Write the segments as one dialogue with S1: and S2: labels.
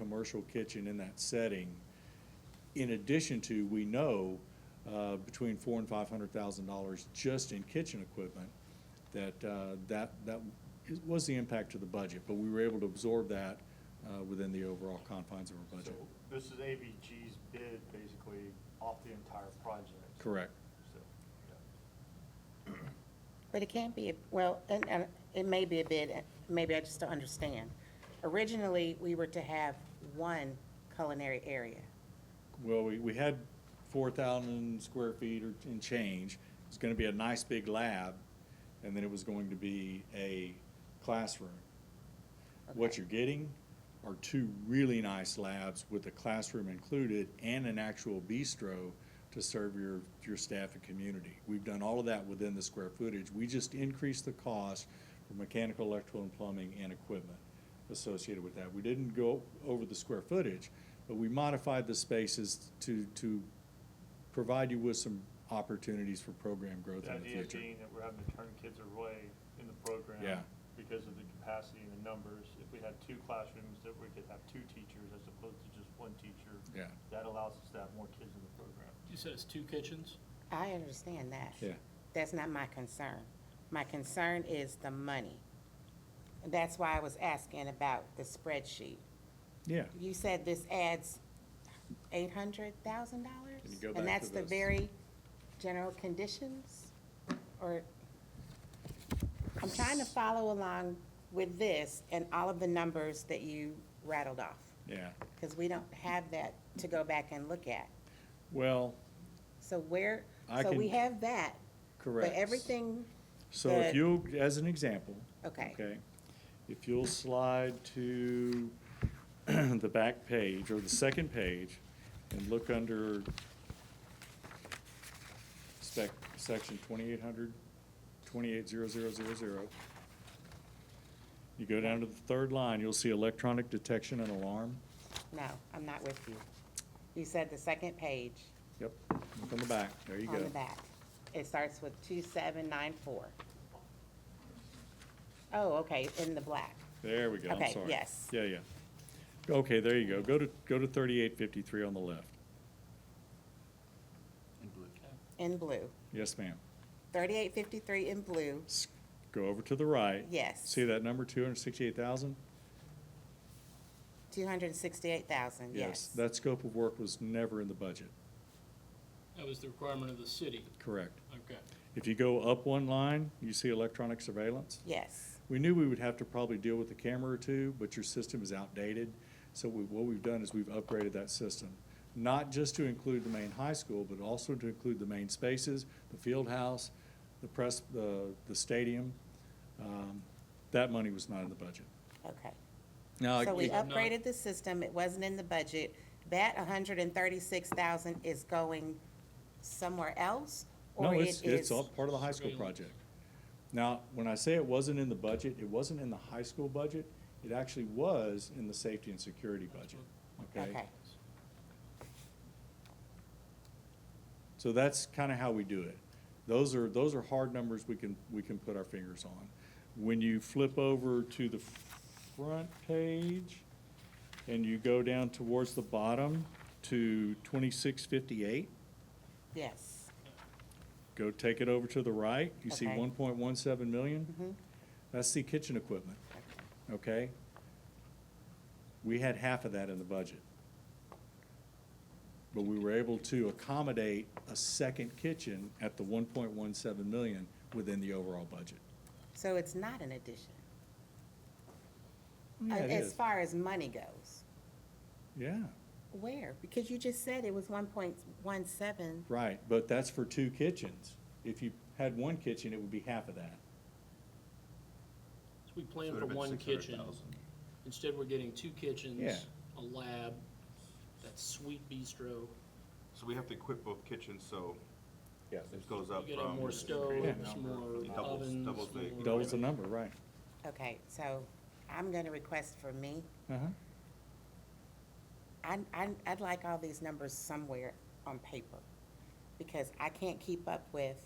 S1: commercial kitchen in that setting. In addition to, we know, uh, between four and five hundred thousand dollars just in kitchen equipment, that, uh, that, that is- was the impact to the budget, but we were able to absorb that, uh, within the overall confines of our
S2: So
S1: budget.
S2: this is AVG's bid basically off the entire project.
S1: Correct.
S2: So, yeah.
S3: But it can't be, a- well, and, and it may be a bid, and maybe I just don't understand. Originally, we were to have one culinary area.
S1: Well, we, we had four thousand square feet or, and change. It's gonna be a nice big lab, and then it was going to be a classroom. What you're getting are two really nice labs with a classroom included and an actual bistro to serve your, your staff and community. We've done all of that within the square footage. We just increased the cost for mechanical, electrical, and plumbing and equipment associated with that. We didn't go over the square footage, but we modified the spaces to, to provide you with some opportunities for program growth
S2: The
S1: in the
S2: idea
S1: future.
S2: being that we're having to turn kids away in the program.
S1: Yeah.
S2: Because of the capacity and the numbers. If we had two classrooms, that we could have two teachers as opposed to just one teacher.
S1: Yeah.
S2: That allows us to have more kids in the program.
S4: You said it's two kitchens?
S3: I understand that.
S1: Yeah.
S3: That's not my concern. My concern is the money. That's why I was asking about the spreadsheet.
S1: Yeah,
S3: You said this adds eight hundred thousand dollars?
S1: Can you go back
S3: And that's
S1: to
S3: the
S1: this?
S3: very general conditions, or? I'm trying to follow along with this and all of the numbers that you rattled off,
S1: yeah.
S3: because we don't have that to go back and look at.
S1: Well,
S3: So where,
S1: I
S3: so we
S1: can-
S3: have that,
S1: correct.
S3: but everything,
S1: So if
S3: that-
S1: you, as an example.
S3: Okay.
S1: Okay, if you'll slide to the back page or the second page and look under spec, section twenty-eight hundred, twenty-eight zero zero zero zero. You go down to the third line, you'll see electronic detection and alarm.
S3: no, I'm not with you. You said the second page
S1: Yep, look on the back, there you go.
S3: on the back. It starts with two seven nine four. Oh, okay, in the black.
S1: There we go, I'm
S3: Okay,
S1: sorry.
S3: yes.
S1: Yeah, yeah. Okay, there you go. Go to, go to thirty-eight fifty-three on the left.
S3: in blue,
S1: Yes, ma'am.
S3: thirty-eight fifty-three in blue,
S1: S- Go over to the right.
S3: Yes.
S1: See that number, two hundred sixty-eight thousand?
S3: two hundred and sixty-eight thousand, yes.
S1: That scope of work was never in the budget,
S4: That was the requirement of the city.
S1: correct.
S4: Okay.
S1: If you go up one line, you see electronic surveillance.
S3: Yes,
S1: We knew we would have to probably deal with a camera or two, but your system is outdated. So we, what we've done is we've upgraded that system, not just to include the main high school, but also to include the main spaces, the field house, the press, the, the stadium. Um, That money was not in the budget.
S3: okay.
S1: Now, uh,
S3: So we
S1: it-
S4: up-
S3: upgraded the system, it wasn't in the budget. That hundred and thirty-six thousand is going somewhere else?
S1: No,
S3: or
S1: it's,
S3: it
S1: it's
S3: is-
S1: all part of the high school
S4: Surveillance.
S1: project. Now, when I say it wasn't in the budget, it wasn't in the high school budget. It actually was in the safety and security budget, okay?
S3: Okay,
S1: So that's kind of how we do it. Those are, those are hard numbers we can, we can put our fingers on. When you flip over to the front page and you go down towards the bottom to twenty-six fifty-eight,
S3: yes,
S1: go take it over to the right, you see
S3: Okay.
S1: one point one seven
S3: Mhm.
S1: million? That's the kitchen equipment. okay? We had half of that in the budget. But we were able to accommodate a second kitchen at the one point one seven million within the overall budget.
S3: so it's not an addition.
S1: Yeah, it
S3: As
S1: is.
S3: far as money goes,
S1: Yeah,
S3: where? Because you just said it was one point one seven,
S1: right, but that's for two kitchens. If you had one kitchen, it would be half of that.
S4: So we planned
S5: Would've
S4: for
S5: been
S4: one kitchen.
S5: 600,000.
S4: Instead, we're getting two
S1: Yeah.
S4: kitchens, a lab, that sweet bistro.
S5: So we have to equip both kitchens, so
S1: Yes.
S5: it goes
S4: You
S5: up
S4: get a
S5: from.
S4: more stoves, more
S5: It doubles-
S4: ovens,
S5: doubles the-
S4: more-
S1: Doubles the number, right.
S3: okay, so I'm gonna request for me,
S1: Uh-huh.
S3: I, I, I'd like all these numbers somewhere on paper, because I can't keep up with,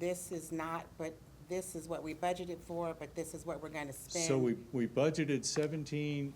S3: this is not, but this is what we budgeted for, but this is what we're gonna spend.
S1: So we, we budgeted seventeen